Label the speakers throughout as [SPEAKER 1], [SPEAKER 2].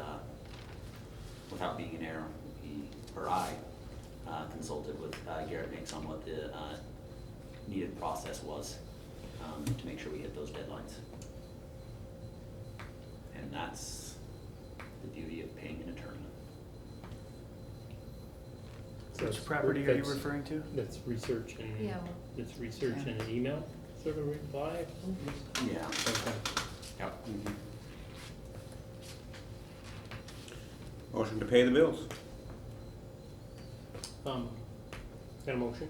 [SPEAKER 1] uh, without being in error, he, or I, uh, consulted with uh, Garrett Nix on what the uh, needed process was um, to make sure we hit those deadlines. And that's the beauty of paying an attorney.
[SPEAKER 2] Which property are you referring to?
[SPEAKER 3] That's research and,
[SPEAKER 4] Yeah, well-
[SPEAKER 3] that's research and an email sort of reply.
[SPEAKER 1] Yeah.
[SPEAKER 3] Okay.
[SPEAKER 2] Mm-hmm.
[SPEAKER 1] Yep.
[SPEAKER 5] Motion to pay the bills.
[SPEAKER 3] Um, got a motion?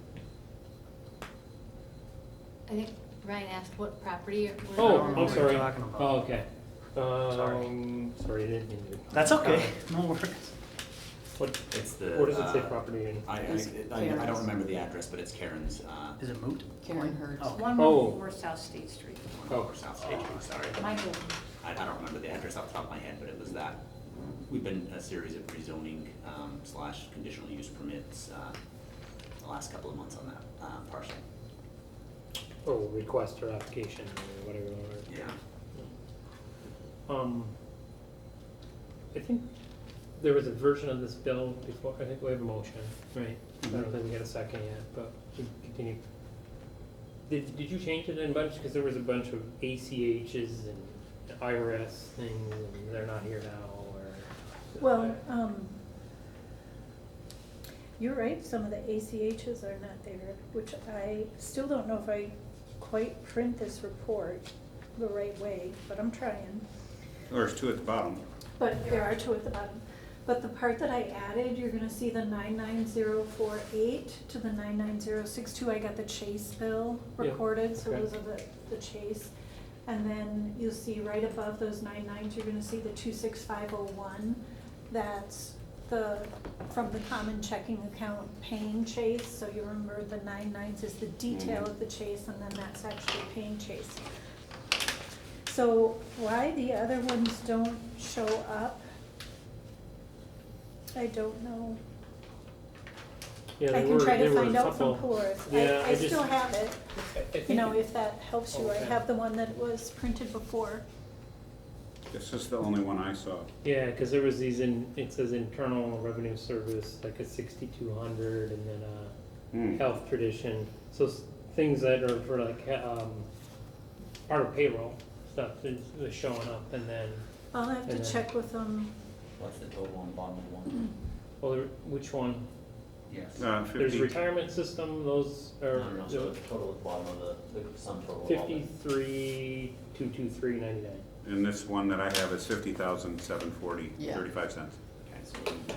[SPEAKER 4] I think Ryan asked what property or. what-
[SPEAKER 3] Oh,
[SPEAKER 2] don't know
[SPEAKER 3] I'm
[SPEAKER 2] what you're
[SPEAKER 3] sorry.
[SPEAKER 2] talking about.
[SPEAKER 3] Oh, okay.
[SPEAKER 2] Sorry.
[SPEAKER 3] Um, sorry, I didn't mean to.
[SPEAKER 2] That's okay, no worries.
[SPEAKER 3] What,
[SPEAKER 1] It's the.
[SPEAKER 3] what does it say
[SPEAKER 1] uh,
[SPEAKER 3] property in?
[SPEAKER 1] I,
[SPEAKER 6] It's
[SPEAKER 1] I- I, I don't remember the address, but it's Karen's, uh,
[SPEAKER 2] Is it moot?
[SPEAKER 6] Karen Hertz.
[SPEAKER 2] Oh.
[SPEAKER 7] One
[SPEAKER 3] Oh.
[SPEAKER 7] oh four South State Street.
[SPEAKER 3] Oh,
[SPEAKER 1] or South State Street, sorry.
[SPEAKER 7] Michael,
[SPEAKER 1] I, I don't remember the address off the top of my head, but it was that. We've been a series of rezoning, um, slash conditional use permits, uh, the last couple of months on that, uh, parcel.
[SPEAKER 3] oh, request or application or whatever. or-
[SPEAKER 1] Yeah.
[SPEAKER 3] Um, I think there was a version of this bill before, I think we have a motion, right? I don't think we got a second yet, but we can continue. Did, did you change it in a bunch, because there was a bunch of ACHs and IRS things, and they're not here now, or?
[SPEAKER 8] Well, um, you're right, some of the ACHs are not there, which I still don't know if I quite print this report the right way, but I'm trying.
[SPEAKER 5] There's two at the bottom.
[SPEAKER 8] But there are two at the bottom. But the part that I added, you're gonna see the nine nine zero four eight to the nine nine zero six two, I got the Chase bill
[SPEAKER 3] Yeah,
[SPEAKER 8] recorded, so
[SPEAKER 3] okay.
[SPEAKER 8] those are the, the Chase. And then you'll see right above those nine nines, you're gonna see the two six five oh one, that's the, from the common checking account paying Chase, so you remember the nine nines is the detail of the Chase, and then that's actually paying Chase. So why the other ones don't show up? I don't know.
[SPEAKER 3] Yeah,
[SPEAKER 8] I
[SPEAKER 3] there
[SPEAKER 8] can
[SPEAKER 3] were-
[SPEAKER 8] try
[SPEAKER 3] there
[SPEAKER 8] to
[SPEAKER 3] were a
[SPEAKER 8] find out
[SPEAKER 3] couple.
[SPEAKER 8] from Coors.
[SPEAKER 3] Yeah,
[SPEAKER 8] I, I
[SPEAKER 3] just-
[SPEAKER 8] still have it,
[SPEAKER 3] I- I think
[SPEAKER 8] you know,
[SPEAKER 3] it-
[SPEAKER 8] if that helps you. I
[SPEAKER 3] Okay.
[SPEAKER 8] have the one that was printed before.
[SPEAKER 5] This is the only one I saw.
[SPEAKER 3] Yeah, because there was these in, it says internal revenue service, like a sixty-two hundred, and then a
[SPEAKER 5] Hmm.
[SPEAKER 3] health tradition. So s- things that are for like he- um, part of payroll stuff is, is showing up, and then
[SPEAKER 8] I'll have to
[SPEAKER 3] Yeah.
[SPEAKER 8] check with them.
[SPEAKER 1] What's the total on bottom of one?
[SPEAKER 3] well, there- which one?
[SPEAKER 1] Yes.
[SPEAKER 5] Uh,
[SPEAKER 3] There's
[SPEAKER 5] fifty,
[SPEAKER 3] retirement system. Those are
[SPEAKER 1] No, no, no, so the total at the bottom of the, the sum total of all the-
[SPEAKER 3] fifty-three two two three ninety-nine.
[SPEAKER 5] and this one that I have is fifty thousand, seven forty,
[SPEAKER 6] Yeah.
[SPEAKER 5] thirty-five cents.
[SPEAKER 1] Okay, so we need to-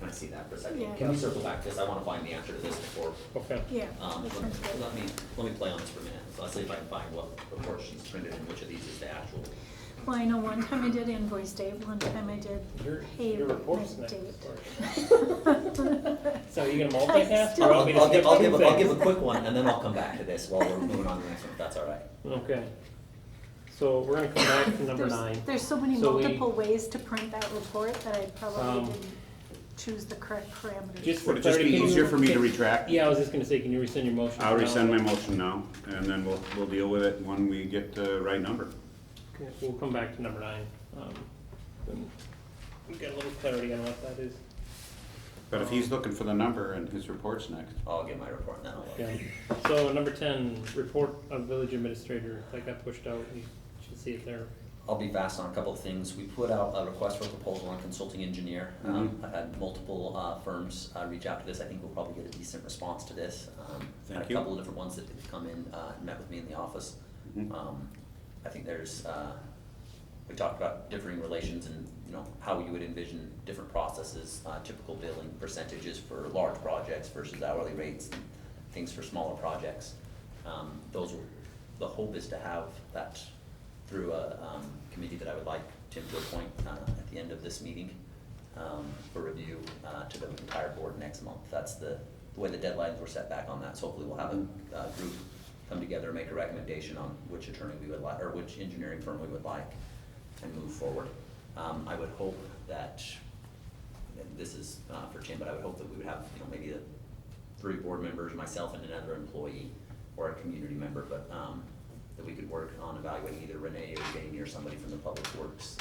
[SPEAKER 1] Can I see that for a second?
[SPEAKER 8] Yeah.
[SPEAKER 1] Can we circle back, because I want to find the answer to this before,
[SPEAKER 3] Okay.
[SPEAKER 8] Yeah.
[SPEAKER 1] um,
[SPEAKER 8] the
[SPEAKER 1] let
[SPEAKER 8] printed.
[SPEAKER 1] let me, let me play on this for a minute. So I'll see if I can find what report she's printed and which of these is the actual.
[SPEAKER 8] Well, I know one time I did invoice date, one time I did
[SPEAKER 3] Your, your report's
[SPEAKER 8] payment
[SPEAKER 3] next.
[SPEAKER 8] date.
[SPEAKER 3] So you gonna
[SPEAKER 8] I
[SPEAKER 3] multitask?
[SPEAKER 8] still-
[SPEAKER 3] or
[SPEAKER 1] I'll,
[SPEAKER 3] want me to
[SPEAKER 1] I'll give, I'll
[SPEAKER 3] skip
[SPEAKER 1] give, a- I'll
[SPEAKER 3] things?
[SPEAKER 1] give a quick one, and then I'll come back to this while we're moving on to the next one, if that's all right.
[SPEAKER 3] Okay. So we're gonna come back to number
[SPEAKER 8] There's-
[SPEAKER 3] nine.
[SPEAKER 8] There's so many
[SPEAKER 3] So we-
[SPEAKER 8] multiple ways to print that report that I
[SPEAKER 3] Um,
[SPEAKER 8] probably didn't choose the correct parameters.
[SPEAKER 3] Just for
[SPEAKER 5] Would it just be
[SPEAKER 3] clarity, can
[SPEAKER 5] easier
[SPEAKER 3] you-
[SPEAKER 5] for me to
[SPEAKER 3] can-
[SPEAKER 5] retract?
[SPEAKER 3] Yeah, I was just gonna say, can you rescind your motion?
[SPEAKER 5] I'll
[SPEAKER 3] for now?
[SPEAKER 5] resend my motion now, and then we'll, we'll deal with it when we get the right number.
[SPEAKER 3] Okay, We'll come back to number nine. Um, then We get a little clarity on what that is.
[SPEAKER 5] But if he's looking for the number and his report's next,
[SPEAKER 1] I'll get my report, and then I'll.
[SPEAKER 3] Yeah. So number ten, report of village administrator, that got pushed out, you should see it there.
[SPEAKER 1] I'll be fast on a couple of things. We put out a request for proposal on consulting engineer. Um,
[SPEAKER 5] Mhm.
[SPEAKER 1] I've had multiple uh, firms uh, reach out to this. I think we'll probably get a decent response to this. Um, Had
[SPEAKER 5] Thank
[SPEAKER 1] a
[SPEAKER 5] you.
[SPEAKER 1] couple of different ones that have come in, uh, and met with me in the office.
[SPEAKER 5] Mhm.
[SPEAKER 1] Um, I think there's, uh, we talked about differing relations and, you know, how you would envision different processes, uh, typical billing percentages for large projects versus hourly rates, and things for smaller projects. Um, Those, were- the hope is to have that through a um, committee that I would like Tim to appoint uh, at the end of this meeting um, for review uh, to the entire board next month. That's the, the way the deadlines were set back on that. So hopefully we'll have a uh, group come together and make a recommendation on which attorney we would like, or which engineering firm we would like and move forward. Um, I would hope that, and this is uh, for Tim, but I would hope that we would have, you know, maybe the three board members, myself and another employee or a community member, but um, that we could work on evaluating either Renee or getting near somebody from the public works